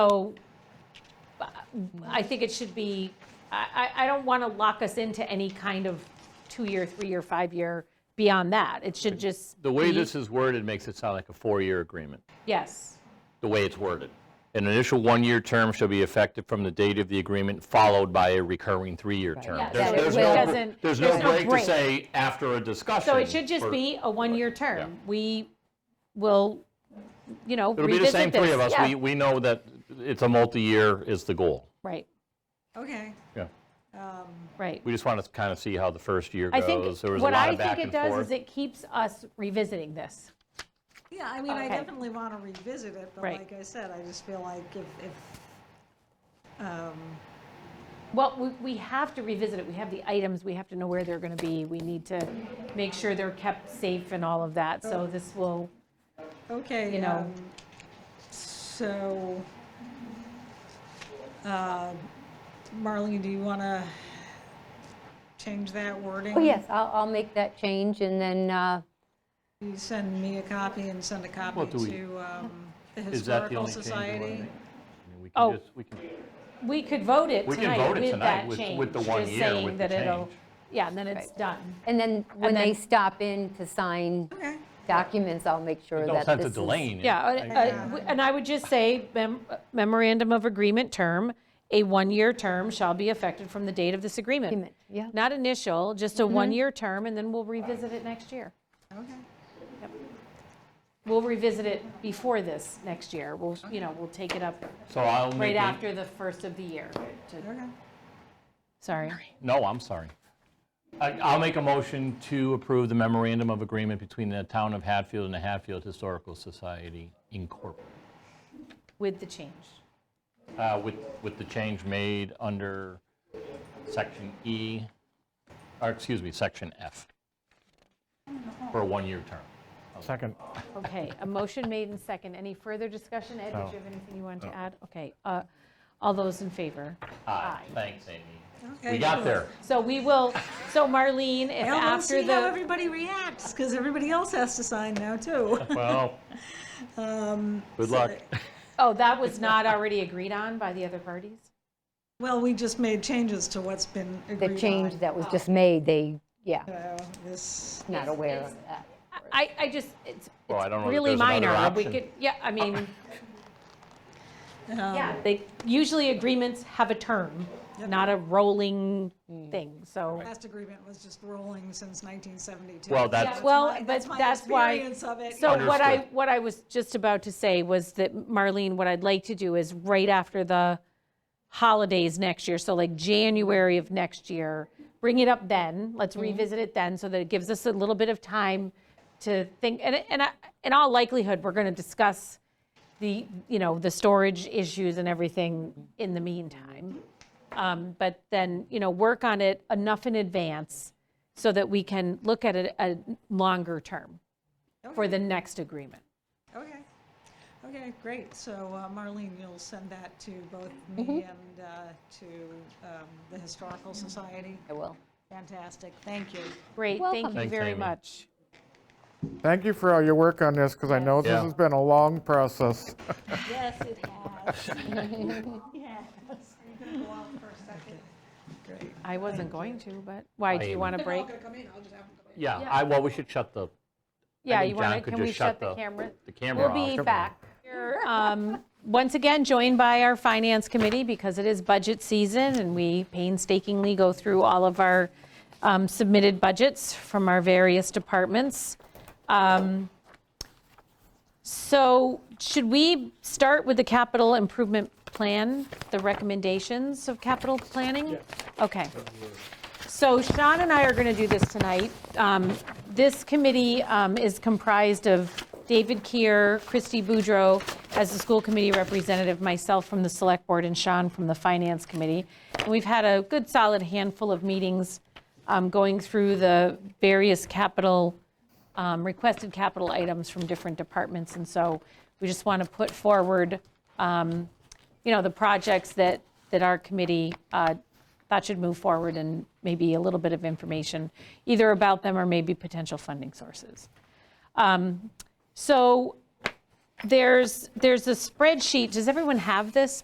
So uh, I think it should be, I, I I don't want to lock us into any kind of two-year, three-year, five-year beyond that. It should just. The way be- this is worded makes it sound like a four-year agreement, Yes, the way it's worded. An initial one-year term shall be effective from the date of the agreement, followed by a recurring three-year term. Yeah, There's- so it there's no- doesn't- There's there's no no break to break. say after a discussion. so it should just or- be a one-year term. We will, you know, It'll be the revisit this. same three of us. Yeah. We, we know that it's a multi-year is the goal. Right, Okay, Yeah. right. We just want to kind of see how the first year I goes. think, There was a what lot I of back think it and does forth. is it keeps us revisiting this. yeah, I mean, I Okay. definitely want to revisit it, but Right. like I said, I just feel like if, if, um, Well, we, we have to revisit it. We have the items, we have to know where they're going to be. We need to make sure they're kept safe and all of that. So this will, You okay, know. um, so, uh, Marlene, do you want to change that wording? Oh, yes, I'll, I'll make that change, and then, uh, You send me a copy and send a copy Well, do we- to, um, the Is that the Historical only change you wanna Society. make? I mean, we can Oh. just- we can- we could vote it We can tonight vote it with tonight that with- change. with the one just year, saying with the that it'll- change. Yeah, and then it's done. and then when then- they stop in to sign Okay, documents, I'll make sure No that sense this of is... delaying it. Yeah, I- and, uh, w- and I would just say mem- uh, memorandum of agreement term, a one-year term shall be affected from the date of this agreement. Agreement, yeah. Mm-hmm. Not initial, just a one-year term, and then we'll revisit it next year. okay. We'll revisit it before this next year. We'll, you know, we'll take it up So I'll make. right a- after the first of the year. to- Okay. Sorry. No, I'm sorry. I- I'll make a motion to approve the memorandum of agreement between the town of Hatfield and the Hatfield Historical Society Incorporated, With the change. uh, with, with the change made under section E, or excuse me, section F, for a one-year term. Second. Okay, a motion made and second. Any further discussion? Ed, did you have anything you wanted to add? Okay, uh, all those in favor? Aye, thanks, Amy. Okay. We got there. So we will, so Marlene, if I want to after see how the, everybody reacts, because everybody else has to sign now, too. Well, good luck. oh, that was not already agreed on by the other parties? Well, we just made changes to what's been agreed on. The change that was just made, they, yeah, So This, not aware of that. I, I just, it's Well, I don't it's know that really there's another minor. We option. could, yeah, I mean, yeah, they, usually agreements have a term, not a rolling thing, so. last agreement was just rolling since 1972. Well, Yeah, that's, Well, my- but that's my that's why. experience of it. So what I, Understood. what I was just about to say was that, Marlene, what I'd like to do is right after the holidays next year, so like January of next year, bring it up then. Let's Mm-hmm. revisit it then so that it gives us a little bit of time to think. And, and I- in all likelihood, we're going to discuss the, you know, the storage issues and everything in the meantime. Um, But then, you know, work on it enough in advance so that we can look at it a longer term for the next agreement. Okay, okay, great. So uh, Marlene, you'll send that to both me Mm-hmm. and uh, to um, the Historical Society. I will. Fantastic, thank you. Great, thank Welcome. you Thanks, very Amy. much. Thank you for all your work on this, because I know this Yeah. has been a long process. Yes, it has. Yes. Great. I wasn't going to, but, why, do Amy. you want a They're all break? gonna come in, I'll just have them come in. yeah, I, well, we should shut the, Yeah, think you John want to, could can we just shut shut the the- camera? the camera We'll off. be back. We're, um, Once again, joined by our Finance Committee because it is budget season and we painstakingly go through all of our um, submitted budgets from our various departments. Um, So should we start with the capital improvement plan, the recommendations of capital planning? Okay. So Sean and I are going to do this tonight. Um, This committee um, is comprised of David Keir, Christy Boudreau as the school committee representative, myself from the select board, and Sean from the finance committee. And we've had a good solid handful of meetings um, going through the various capital, um, requested capital items from different departments. And so we just want to put forward, um, you know, the projects that, that our committee uh, thought should move forward and maybe a little bit of information, either about them or maybe potential funding sources. Um, So there's, there's a spreadsheet, does everyone have this